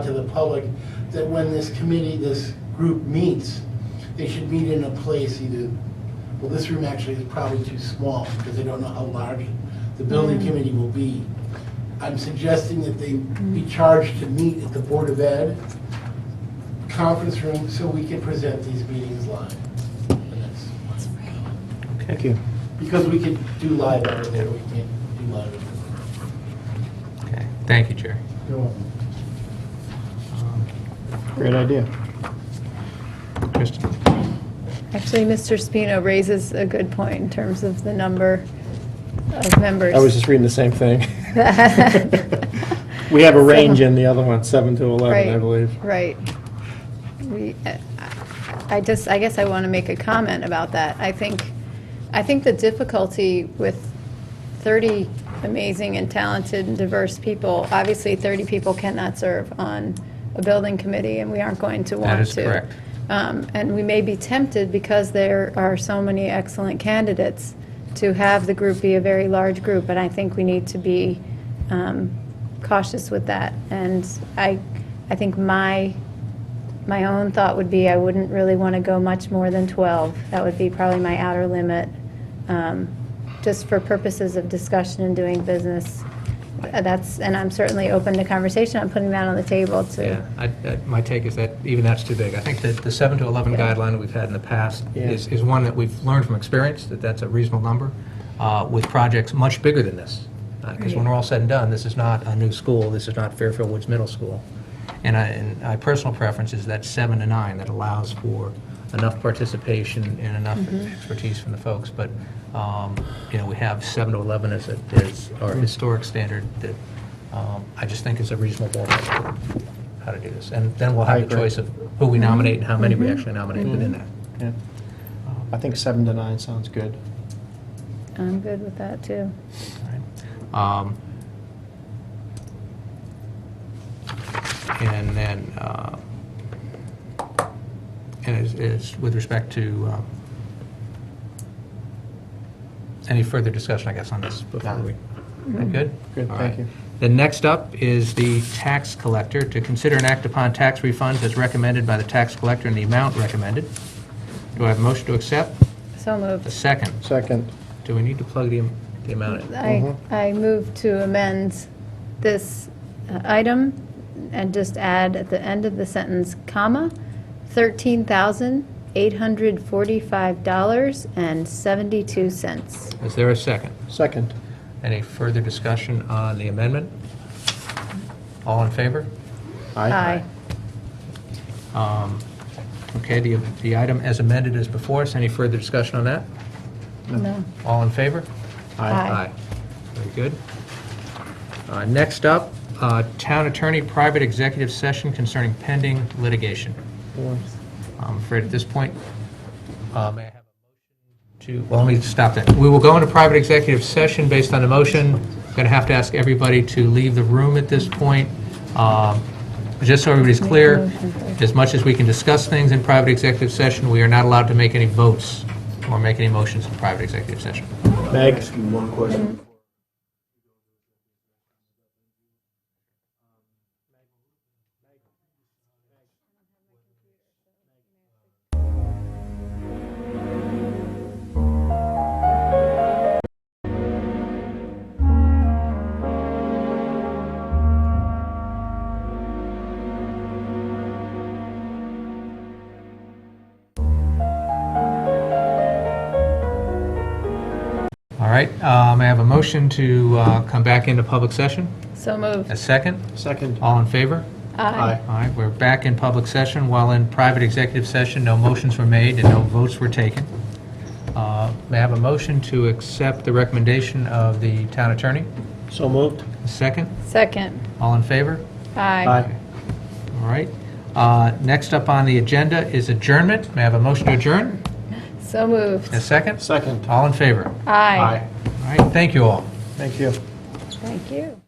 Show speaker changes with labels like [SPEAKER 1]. [SPEAKER 1] to the public that when this committee, this group meets, they should meet in a place either, well, this room actually is probably too small because they don't know how large the building committee will be. I'm suggesting that they be charged to meet at the Board of Ed conference room so we can present these meetings live. And that's-
[SPEAKER 2] Thank you.
[SPEAKER 1] Because we could do live over there, we can't do live. over there.
[SPEAKER 3] Okay, thank you, Jerry.
[SPEAKER 2] Great idea.
[SPEAKER 3] Kristen?
[SPEAKER 4] Actually, Mr. Spino raises a good point in terms of the number of members.
[SPEAKER 2] I was just reading the same thing. We have a range in the other one, 7 to 11, I
[SPEAKER 4] Right,
[SPEAKER 2] believe.
[SPEAKER 4] Right. We, I- I just, I guess I want to make a comment about that. I think, I think the difficulty with 30 amazing and talented and diverse people, obviously 30 people cannot serve on a building committee, and we aren't going to
[SPEAKER 3] That
[SPEAKER 4] want to.
[SPEAKER 3] is correct.
[SPEAKER 4] Um, And we may be tempted, because there are so many excellent candidates, to have the group be a very large group, and I think we need to be um, cautious with that. And I, I think my, my own thought would be I wouldn't really want to go much more than 12. That would be probably my outer limit, um, just for purposes of discussion and doing business. Uh, That's, and I'm certainly open to conversation, I'm putting that on the table too.
[SPEAKER 3] Yeah, I- I- my take is that even that's too big. I think that the 7 to 11
[SPEAKER 4] Yeah.
[SPEAKER 3] guideline that we've had in the past
[SPEAKER 2] Yeah.
[SPEAKER 3] is is one that we've learned from experience, that that's a reasonable number, uh, with projects much bigger than this. Because when
[SPEAKER 4] Right.
[SPEAKER 3] we're all said and done, this is not a new school, this is not Fairfield Woods Middle School. And I- and my personal preference is that 7 to 9, that allows for enough participation and enough
[SPEAKER 2] Mm-hmm.
[SPEAKER 3] expertise from the folks. But, um, you know, we have 7 to 11 as a- as our historic standard that um, I just think is a reasonable one how to do this. And then we'll
[SPEAKER 2] I
[SPEAKER 3] have the
[SPEAKER 2] agree. Mm-hmm.
[SPEAKER 3] choice of who we nominate and how many we actually nominate within that.
[SPEAKER 2] Yeah. I think 7 to 9 sounds good.
[SPEAKER 4] I'm good with that too.
[SPEAKER 3] All right. Um, And then, uh, and is- is, with respect to, um, any further discussion, I guess, on this before we, that good?
[SPEAKER 2] Good,
[SPEAKER 3] All
[SPEAKER 2] thank
[SPEAKER 3] right.
[SPEAKER 2] you.
[SPEAKER 3] Then next up is the tax collector, to consider and act upon tax refunds as recommended by the tax collector and the amount recommended. Do I have a motion to accept?
[SPEAKER 4] So
[SPEAKER 3] A
[SPEAKER 4] moved.
[SPEAKER 3] second.
[SPEAKER 2] Second,
[SPEAKER 3] Do we need to plug the am- the amount in?
[SPEAKER 4] I,
[SPEAKER 2] Mhm.
[SPEAKER 4] I move to amend this uh, item and just add at the end of the sentence, comma, $13,845.72.
[SPEAKER 3] Is there a second?
[SPEAKER 2] second.
[SPEAKER 3] Any further discussion on the amendment? All in favor?
[SPEAKER 4] Aye.
[SPEAKER 3] Um, Okay, the, the item as amended is before us. Any further discussion on that?
[SPEAKER 4] No.
[SPEAKER 3] All in favor?
[SPEAKER 2] Aye.
[SPEAKER 4] Aye.
[SPEAKER 3] Very good. Uh, Next up, uh, town attorney, private executive session concerning pending litigation. I'm afraid at this point, uh, may I have a motion to, well, let me stop that. We will go into private executive session based on the motion. I'm Going to have to ask everybody to leave the room at this point. Um, Just so everybody's clear, as much as we can discuss things in private executive session, we are not allowed to make any votes or make any motions in private executive session.
[SPEAKER 2] Meg?
[SPEAKER 5] ask you one question.
[SPEAKER 3] All right, um, I have a motion to uh, come back into public session.
[SPEAKER 4] So moved.
[SPEAKER 3] A second?
[SPEAKER 2] Second.
[SPEAKER 3] All in favor?
[SPEAKER 4] Aye.
[SPEAKER 3] All right, we're back in public session. While in private executive session, no motions were made and no votes were taken. Uh, May I have a motion to accept the recommendation of the town attorney?
[SPEAKER 2] So moved?
[SPEAKER 3] A second?
[SPEAKER 4] Second.
[SPEAKER 3] All in favor?
[SPEAKER 4] Aye.
[SPEAKER 3] All right. Uh, Next up on the agenda is adjournment. May I have a motion to adjourn?
[SPEAKER 4] So moved.
[SPEAKER 3] A second?
[SPEAKER 2] Second.
[SPEAKER 3] All in favor?
[SPEAKER 4] Aye.
[SPEAKER 3] All right, thank you all.
[SPEAKER 2] Thank you.
[SPEAKER 4] Thank you.